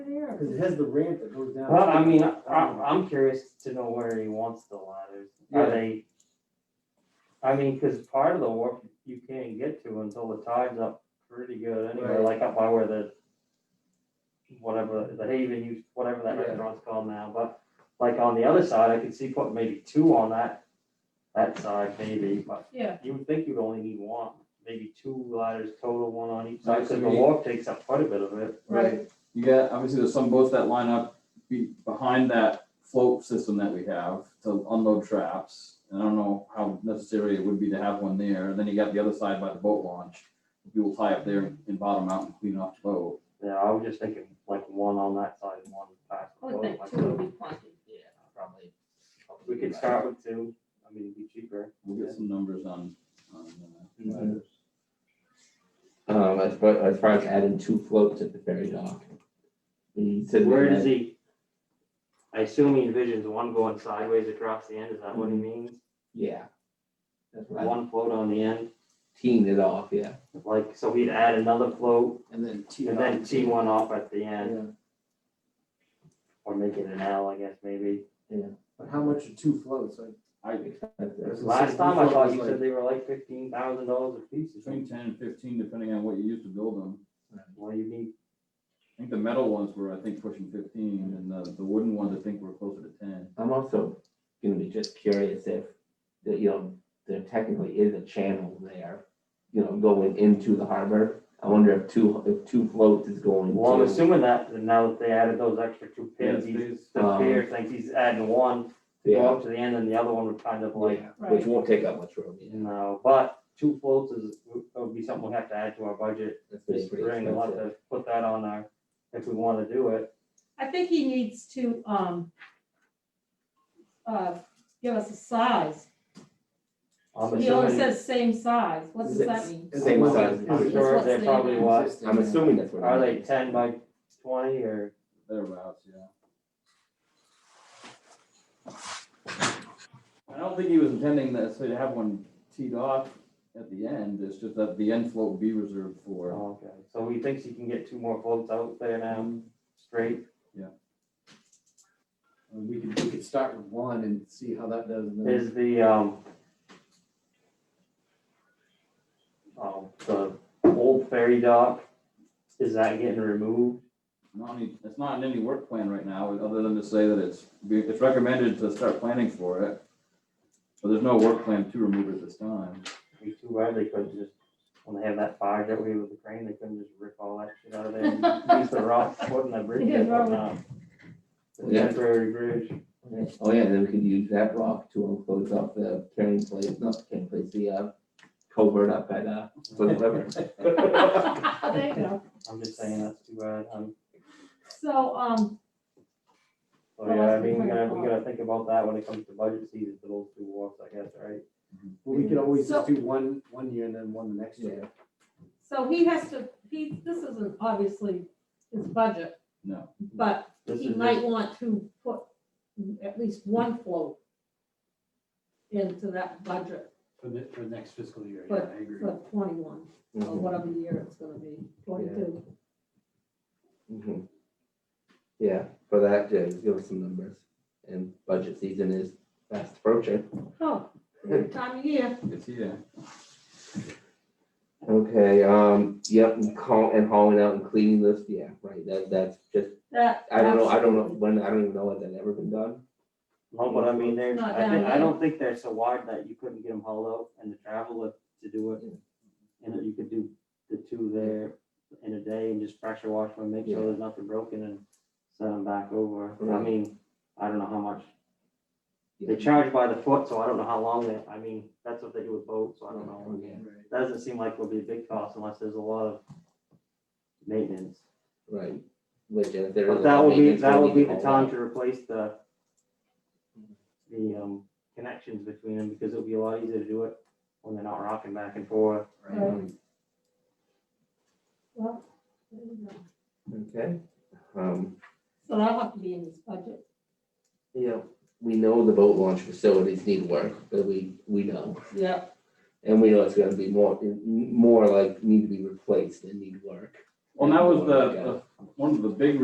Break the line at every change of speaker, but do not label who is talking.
Cause it has the ramp that goes down.
Well, I mean, I, I'm- I'm curious to know where he wants the ladders.
Yeah.
Are they? I mean, cause part of the wharf you can't get to until the tide's up pretty good anyway,
Right.
like up by where the whatever, the Haven, you, whatever that
Yeah.
restaurant's called now, but like on the other side, I could see putting maybe two on that, that side maybe, but
Yeah.
you would think you'd only need one, maybe two ladders total, one on each
Right,
side,
so
cause the
we-
wharf takes up quite a bit of it.
Right. You got, obviously, there's some boats that line up be, behind that float system that we have to unload traps. And I don't know how necessary it would be to have one there, and then you got the other side by the boat launch. People tie up there and bottom out and clean off the boat.
Yeah, I was just thinking like one on that side and one past. the
I would
boat,
think
like
two would be plenty.
Yeah, probably. probably
We could
right.
start with two, I mean, it'd be cheaper.
We'll get some numbers on, on, uh,
Um, as far, as far as adding two floats at the ferry dock. He said.
Where does he? I assume he envisions one going sideways across the end, is that what he means?
Yeah. That's what I
One float on the end,
teeing it off, yeah,
like, so he'd add another float
And then T.
and then tee one off at the end,
Yeah,
or make it an L, I guess, maybe.
But how much are two floats? Like,
uh, I,
expensive.
That's the
Last
same
time I
float
thought
was
you
like-
said they were like fifteen thousand dollars a piece or something.
between ten and fifteen, depending on what you use to build them.
Well, you need,
I think the metal ones were, I think, pushing fifteen, and the, the wooden ones, I think, were closer to ten.
I'm also gonna be just curious if, that, you know, there technically is a channel there, you know, going into the harbor. I wonder if two, if two floats is going
well, I'm
to,
assuming that, and now that they added those extra two pins,
Yeah,
he's,
these-
Um,
the pier thinks he's adding one to go
yeah,
up to the end and the other one would kind of like,
yeah,
Right.
which won't take up much room, yeah.
no, but two floats is, would be something we have to add to our budget.
That's
This
pretty pretty
spring, we'll have
expensive.
to put that on our, if we want to do it.
I think he needs to, um, uh, give us a size.
I'm
He always
assuming,
says same size. What does that mean?
is it
Same
one-
size.
is
I'm
it-
That's
sure
what's
they
there
probably
now.
was,
I'm assuming that's what. it
are they
is.
ten by twenty or,
Thereabouts, yeah. I don't think he was intending that, so to have one teed off at the end, it's just that the end float be reserved for.
oh, okay, so he thinks he can get two more floats out there
Mm-hmm.
now, straight.
I mean, We could, we could start with one and see how that does. and then-
Is the, um, um, the old ferry dock, is that getting removed?
Not any, it's not in any work plan right now, other than to say that it's, it's recommended to start planning for it. But there's no work plan to remove it this time.
be too bad, they couldn't just, when they have that fire that we with the crane, they couldn't just rip all that shit out of there and use the rock footing that bridge
Yeah,
is
probably.
on. The
Yeah.
temporary bridge,
Okay. Oh, yeah, and then we could use that rock to enclose off the carrying place, not the carrying place, the uh, covert up at, uh, Flint River.
There you go.
I'm just saying that's too bad, um,
So, um,
so
Well,
yeah, I
that's
mean, we
the
gotta,
point.
we gotta think about that when it comes to budget season for those two walks, I guess, right?
Well, we could always just
So-
do one, one year and then one the next year.
so he has to, he, this isn't obviously his budget,
No,
but
This
he
is
might
just,
want to put at least one float into that budget
For the, for next fiscal year, yeah,
But-
I agree.
for twenty-one, or
Mhm,
whatever year it's gonna be, twenty-two.
mhm. Yeah, for that, yeah, just give us some numbers. And budget season is fast approaching.
Oh, good time of year.
it's here.
Okay, um, yep, and call, and hauling out and cleaning this, yeah, right, that, that's just,
That.
I don't know, I don't know, when, I don't even know when that ever been done.
no, but I mean, they're,
Not
I think,
down
I don't think they're so wide that you couldn't get them hauled out and the travel to- to do it. And that you could do the two there in a day and just pressure wash them, make sure
Yeah.
there's nothing broken and send them back over, I
Right.
mean, I don't know how much They
Yeah.
charge by the foot, so I don't know how long that, I mean, that's what they do with boats, so I don't know.
Yeah,
That doesn't seem like it'll be a big cost unless there's a lot of maintenance.
Right, which, uh, there is.
But
a
that
lot of
will be,
maintenance
that
we
will
need
be
to
the
haul
time
out.
to replace the the um connections between them because it'll be a lot easier to do it when they're not rocking back and forth.
Right. Well, there you go.
Mm-hmm. Okay, um,
So that'll have to be in his budget.
you know, we know the boat launch facilities need work, but we, we know.
Yeah.
And we know it's gonna be more, more like need to be replaced than need work.
Well, that was the, the, one of the big